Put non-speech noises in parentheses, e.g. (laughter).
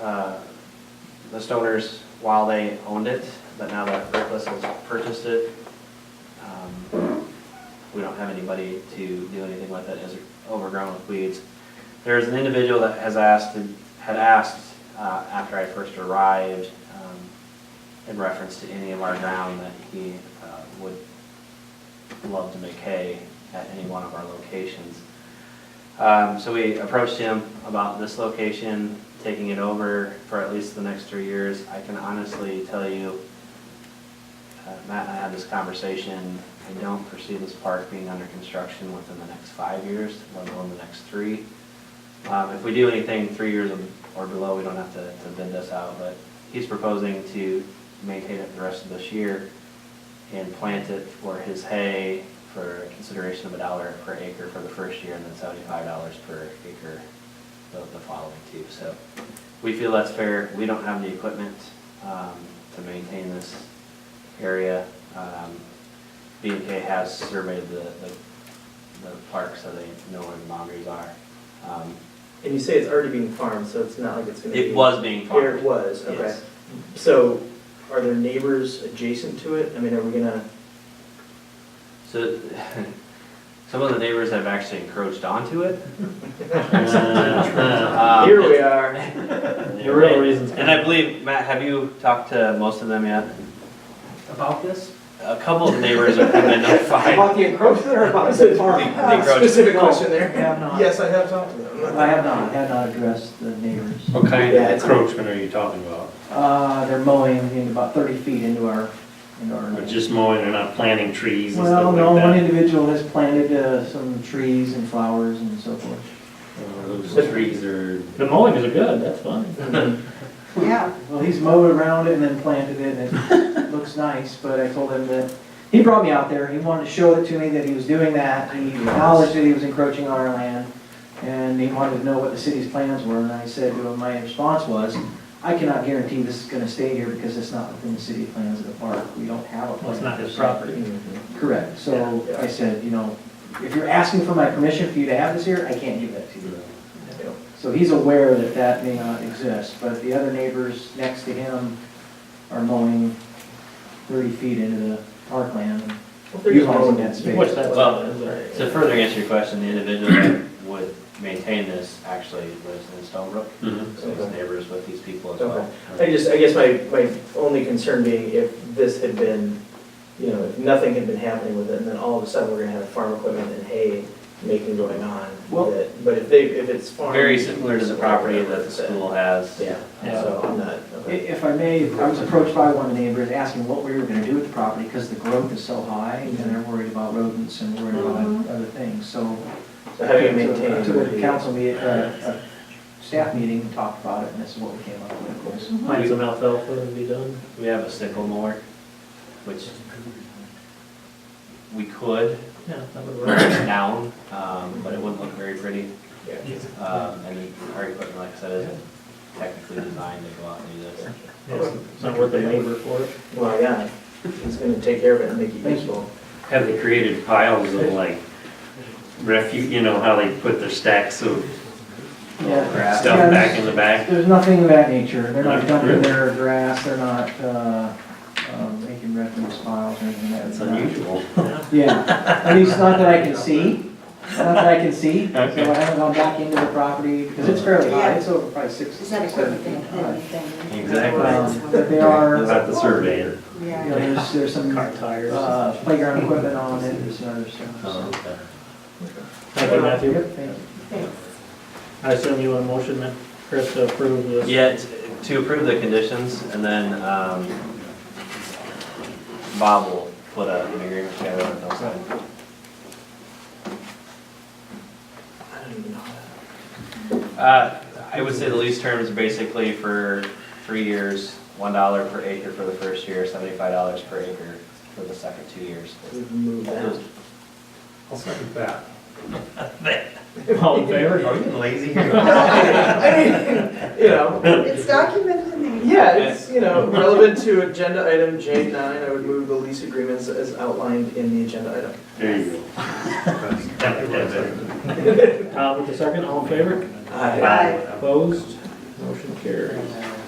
uh, the Stoners while they owned it, but now that Rickless has purchased it, um, we don't have anybody to do anything with it, it's overgrown with weeds. There's an individual that has asked, had asked uh, after I first arrived, um, in reference to any of our ground, that he uh, would love to make hay at any one of our locations. Um, So we approached him about this location, taking it over for at least the next three years. I can honestly tell you, uh, Matt and I had this conversation, I don't foresee this park being under construction within the next five years, let alone the next three. Um, If we do anything three years or below, we don't have to to bid this out, but he's proposing to maintain it the rest of this year and plant it for his hay for a consideration of a dollar per acre for the first year and then seventy-five dollars per acre the, the following two. So we feel that's fair. We don't have the equipment, um, to maintain this area. Um, B and K has surveyed the, the, the park so they know where the boundaries are. Um, And you say it's already being farmed, so it's not like it's gonna be. It was being farmed. Here it was, okay. Yes. So are there neighbors adjacent to it? I mean, are we gonna, So, (laughs) some of the neighbors have actually encroached onto it. Um, here (laughs) we are. The real reasons. And (laughs) I believe, Matt, have you talked to most of them yet? About this? A couple of neighbors have been (laughs) notified. About the encroachment or about The- the the farm? Uh, Specific No, question there. have not. Yes, I have talked to I them. (laughs) have not, have not addressed the neighbors. What kind Yeah, of it's- encroachment are you talking about? Uh, they're mowing in about thirty feet into our, into our. Or Just mowing and not planting trees and Well, stuff no, one like that? individual has planted, uh, some trees and flowers and so forth. Uh, Those trees are, The mowings are good, that's fine. Yeah. Well, he's mowed around it and then planted it, and it looks nice, but I told him that, he brought me out there, he wanted to show it to me that he was doing that, he acknowledged that he was encroaching on our land, and he wanted to know what the city's plans were, and I said to him, my response was, I cannot guarantee this is gonna stay here because it's not within the city plans of the park, we don't have a plan. Well, it's not his property. Mm-hmm. Correct, so Yeah, yeah. I said, you know, if you're asking for my permission for you to have this here, I can't give that to you. So he's aware that that may not exist, but the other neighbors next to him are mowing thirty feat into the parkland. Utilizing that space. What's that? Well, Right. To further answer your question, the individual that would maintain this actually lives in Stonebrook, Mhm. so he's neighbors with these people as well. I just, I guess my, my only concern being if this had been, you know, if nothing had been happening with it, and then all of a sudden we're gonna have farm equipment and hay making going on. Well- with it. But if they, if it's farmed. Very similar to the property that the Yeah. school has. Yeah, Yeah. so I'm not, I- okay. If I may, I was approached by one of the neighbors asking what we were gonna do with the property, because the growth is so high, and they're worried about rodents and worried about other things, so. So having it I took- maintained. Took would a be- council meeting, uh, a staff meeting, and talked about it, and this is what we came up with, of course. Plant some alfalfa and be done. We have a sickle mower, which we could Yeah, that would work. down, um, but it wouldn't look very pretty. Yeah. Um, and our equipment, like I said, isn't technically designed to go out and do this. It's not worth the labor for it. Well, yeah, it's gonna take care of it and make it Thank you. useful. Have they created piles of like refuge, you know, how they put their stacks of Yeah. stuff back in the back? There's nothing of that nature, they're not Not dumping really? their grass, they're not, uh, um, making refuse piles or anything like that. That's unusual. Yeah, at least not that I can see, not that I can see, so I Okay. haven't gone back into the property, because it's fairly high, Yeah. it's over probably six, Is that seven equipment thing? feet high. Exactly. Um, But they are, you know, About the surveyor. Yeah. there's, there's some, Car tires. Oh, uh, playground equipment on it, there's some other stuff, so. okay. Thank you, Matthew. Yep, thank you. Thanks. I assume you want a motion, Matt, Chris, to approve this? Yeah, t- to approve the conditions, and then, um, Bob will put a- an agreement together and they'll sign. I don't even know. Uh, I would say the lease terms are basically for three years, one dollar per acre for the first year, seventy-five dollars per acre for the second two years. We've moved that. I'll second that. All in favor? Are you lazy here? (laughs) I mean, you know, It's documented in the. yeah, it's, you know, relevant to agenda item J nine, I would move the lease agreements as outlined in the agenda item. There you go. That- that's it. Todd with the second, all in favor? 哎 Aye. Aye. Opposed? Motion carries. And, uh,